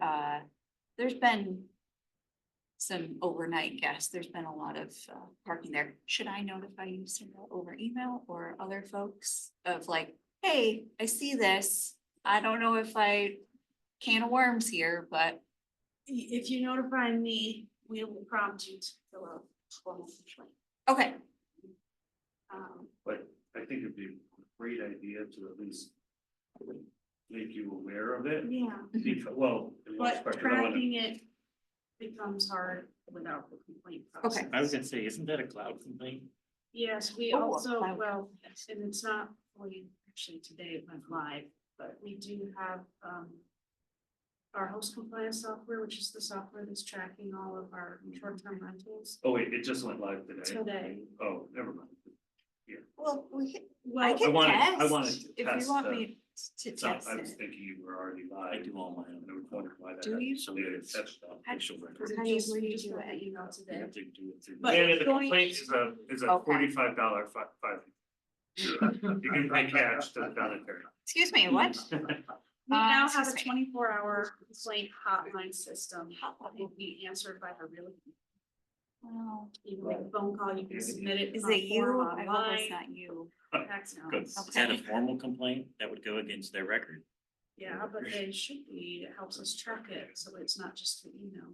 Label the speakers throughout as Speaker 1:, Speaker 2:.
Speaker 1: uh, there's been some overnight guests. There's been a lot of uh, parking there. Should I notify you Cindy, over email or other folks of like, hey, I see this. I don't know if I can of worms here, but
Speaker 2: If you notify me, we will prompt you to fill out a formal complaint.
Speaker 1: okay,
Speaker 2: Um,
Speaker 3: But I think it'd be a great idea to at least make you aware of
Speaker 1: Mm-hmm.
Speaker 3: it.
Speaker 2: yeah,
Speaker 3: Because, well. I mean,
Speaker 2: but
Speaker 3: especially when-
Speaker 2: tracking it becomes hard without the complaint process.
Speaker 1: okay.
Speaker 4: I was gonna say, isn't that a cloud complaint?
Speaker 2: Yes, we
Speaker 1: Oh,
Speaker 2: also,
Speaker 1: wow.
Speaker 2: well, and it's not, fully actually today it went live, but we do have, um. Our host compliance software, which is the software that's tracking all of our short-term rentals
Speaker 3: Oh, wait, it just went live today.
Speaker 2: today.
Speaker 3: Oh, never mind.
Speaker 1: Well, we can, I
Speaker 2: Well,
Speaker 1: can
Speaker 3: wanted- I wanted
Speaker 1: test
Speaker 3: to
Speaker 1: if
Speaker 3: test
Speaker 1: you want
Speaker 3: the-
Speaker 1: me to
Speaker 3: So
Speaker 1: test
Speaker 3: I was
Speaker 1: it.
Speaker 3: thinking you were already live.
Speaker 4: I do all my own.
Speaker 3: And I was wondering why that.
Speaker 1: Do you?
Speaker 3: So we had touched on.
Speaker 1: I-
Speaker 4: Facial
Speaker 1: Does
Speaker 4: record.
Speaker 1: it
Speaker 2: we
Speaker 1: just-
Speaker 2: just- we
Speaker 1: you
Speaker 2: just
Speaker 1: do
Speaker 2: got
Speaker 1: it?
Speaker 2: an email
Speaker 4: You
Speaker 2: today.
Speaker 4: have to do it through.
Speaker 2: But-
Speaker 3: And the
Speaker 2: going-
Speaker 3: complaint is a, is a
Speaker 1: Okay.
Speaker 3: forty-five dollar fi- fine. You can pay cash to the donor.
Speaker 1: Excuse me, what? Uh,
Speaker 2: We now have a
Speaker 1: excuse me.
Speaker 2: twenty-four hour complaint hotline system, that will be answered by a real,
Speaker 1: Wow.
Speaker 2: you can make a phone call, you can submit it.
Speaker 1: Is
Speaker 2: on
Speaker 1: it you?
Speaker 2: form
Speaker 1: I hope it's
Speaker 2: online.
Speaker 1: not you.
Speaker 2: Fax now.
Speaker 4: Good. Is that a formal complaint that would go against their record?
Speaker 2: Yeah, but they should be, it helps us track it, so it's not just the email.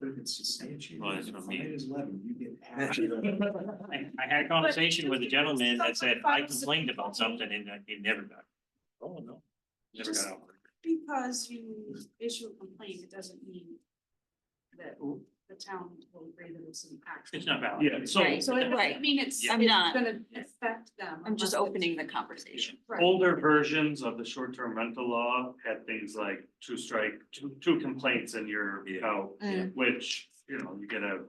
Speaker 5: But if it's substantiated,
Speaker 4: Well, that's what I mean.
Speaker 5: if it is eleven, you get action.
Speaker 4: I, I had a conversation with a gentleman that said, I complained about something and I- it never got. Oh, no. Never got out.
Speaker 2: Because you issue a complaint, it doesn't mean that the town will agree that it's an action.
Speaker 4: It's not valid.
Speaker 3: Yeah, so
Speaker 1: Right.
Speaker 2: So it, I
Speaker 1: Right.
Speaker 2: mean, it's, it's
Speaker 1: I'm not.
Speaker 2: gonna affect them.
Speaker 1: I'm just
Speaker 2: unless it's-
Speaker 1: opening the conversation.
Speaker 2: Right,
Speaker 3: older versions of the short-term rental law had things like two strike, two, two complaints and you're
Speaker 4: Yeah.
Speaker 3: out,
Speaker 1: Mm.
Speaker 3: which, you know, you get a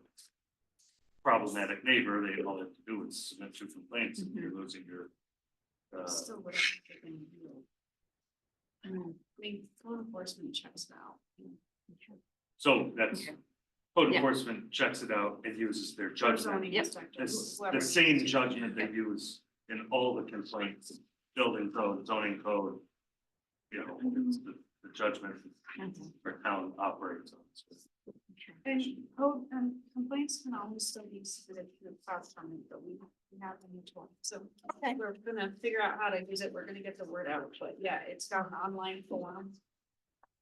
Speaker 3: problematic neighbor, they all they have to do is submit two complaints and you're losing your uh,
Speaker 2: still whatever they're gonna do.
Speaker 1: Mm.
Speaker 2: I mean, code enforcement checks it out.
Speaker 3: so that's
Speaker 1: Okay.
Speaker 3: code
Speaker 1: Yeah.
Speaker 3: enforcement checks it out and uses their
Speaker 2: Zoning
Speaker 3: judgment.
Speaker 1: Yep.
Speaker 2: inspector,
Speaker 3: It's
Speaker 2: whoever.
Speaker 3: the same judgment they use in all the complaints, building code, zoning code. You know, it's the, the judgment
Speaker 1: Mhm.
Speaker 3: for town operates on.
Speaker 2: And code, um, complaints can always still be submitted to the file department, but we we have them each one, so.
Speaker 1: Okay.
Speaker 2: We're gonna figure out how to use it, we're gonna get the word out, but yeah, it's got an online form.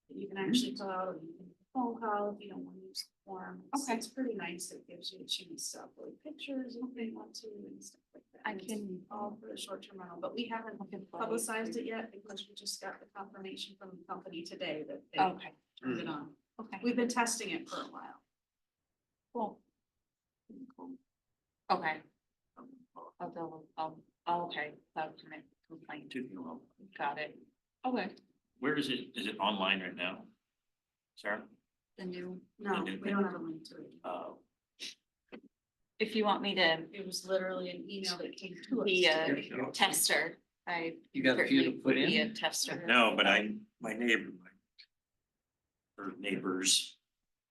Speaker 2: that You can
Speaker 3: Mm-hmm.
Speaker 2: actually fill out, or you can phone call if you don't wanna use the form. It's-
Speaker 1: Okay.
Speaker 2: It's pretty nice, it gives you a chance to upload pictures if they want to and stuff like that.
Speaker 1: I
Speaker 2: And it's
Speaker 1: can-
Speaker 2: All for the short term rental, but we haven't publicized it yet because we just got the confirmation from the company today that they
Speaker 1: Okay,
Speaker 2: turned it on.
Speaker 1: okay.
Speaker 2: We've been testing it for a while.
Speaker 1: Cool. Cool. Okay. I'll double, I'll, oh, okay, cloud commit complaint,
Speaker 4: Took me a while.
Speaker 1: got it. Okay.
Speaker 4: Where is it? Is it online right now? Sarah?
Speaker 1: The new,
Speaker 2: No,
Speaker 4: Okay.
Speaker 2: we don't have a link to it.
Speaker 4: Uh,
Speaker 1: if you want me to
Speaker 2: It was literally an email that came to us.
Speaker 1: be a
Speaker 5: There you go.
Speaker 1: tester, I.
Speaker 5: You got a few to
Speaker 1: certainly
Speaker 5: put
Speaker 1: would Be a
Speaker 5: in?
Speaker 1: tester.
Speaker 4: no, but I, my neighbor. my- Or neighbors,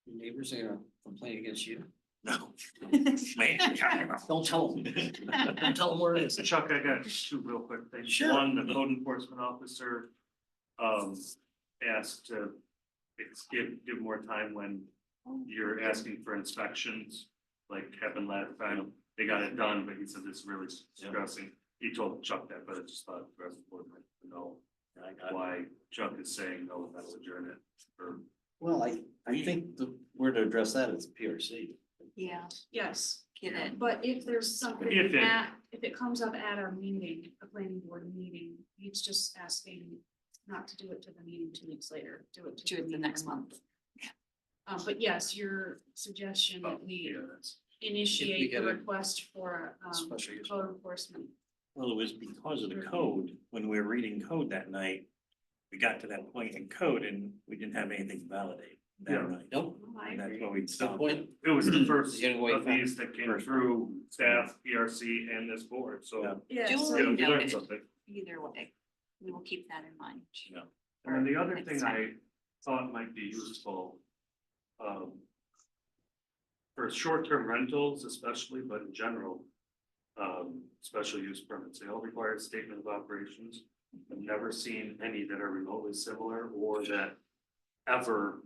Speaker 5: Your Neighbors are gonna complain against you.
Speaker 4: no. Man,
Speaker 5: Don't tell them. Don't tell them where it is.
Speaker 3: So Chuck, I got two real quick things.
Speaker 5: Sure.
Speaker 3: One, the code enforcement officer um asked to ex- give give more time when you're asking for inspections, like happened last time. They got it done, but he said it's really stressing. He told Chuck that, but I just thought the rest of the board might know
Speaker 4: I got it.
Speaker 3: why Chuck is saying no, that'll adjourn it. Or
Speaker 5: Well, I, I think the, where to address that is PRC.
Speaker 1: Yeah,
Speaker 2: Yes,
Speaker 1: get it.
Speaker 2: but if there's something
Speaker 3: If it-
Speaker 2: at, if it comes up at a meeting, a planning board meeting, he's just asking not to do it to the meeting two weeks later, do it. to
Speaker 1: Do it the
Speaker 2: meeting
Speaker 1: next
Speaker 2: a month.
Speaker 1: month.
Speaker 2: Uh, but yes, your suggestion that we
Speaker 5: Oh,
Speaker 3: yeah, that's
Speaker 2: initiate the
Speaker 5: get a
Speaker 2: request for, um,
Speaker 5: Special use.
Speaker 2: code enforcement.
Speaker 4: Well, it was because of the code, when we were reading code that night, we got to that point in code and we didn't have anything validated
Speaker 3: Yeah.
Speaker 4: that night.
Speaker 5: Nope.
Speaker 4: And that's what we
Speaker 5: It's the
Speaker 4: stopped.
Speaker 5: point.
Speaker 3: it was the first
Speaker 5: Getting away
Speaker 3: of
Speaker 5: from-
Speaker 3: these that came through staff, ERC and this board,
Speaker 4: Yeah.
Speaker 3: so.
Speaker 2: Yeah,
Speaker 1: Do
Speaker 2: so-
Speaker 3: you know,
Speaker 1: we
Speaker 3: you
Speaker 1: know
Speaker 3: learned
Speaker 1: it?
Speaker 3: something.
Speaker 1: Either way, we will keep that in mind.
Speaker 4: Yeah.
Speaker 3: And then the other
Speaker 1: Next
Speaker 3: thing I
Speaker 1: time.
Speaker 3: thought might be useful. Um. For short-term rentals especially, but in general. Um, special use permits, they all require a statement of operations. I've never seen any that are remotely similar or that ever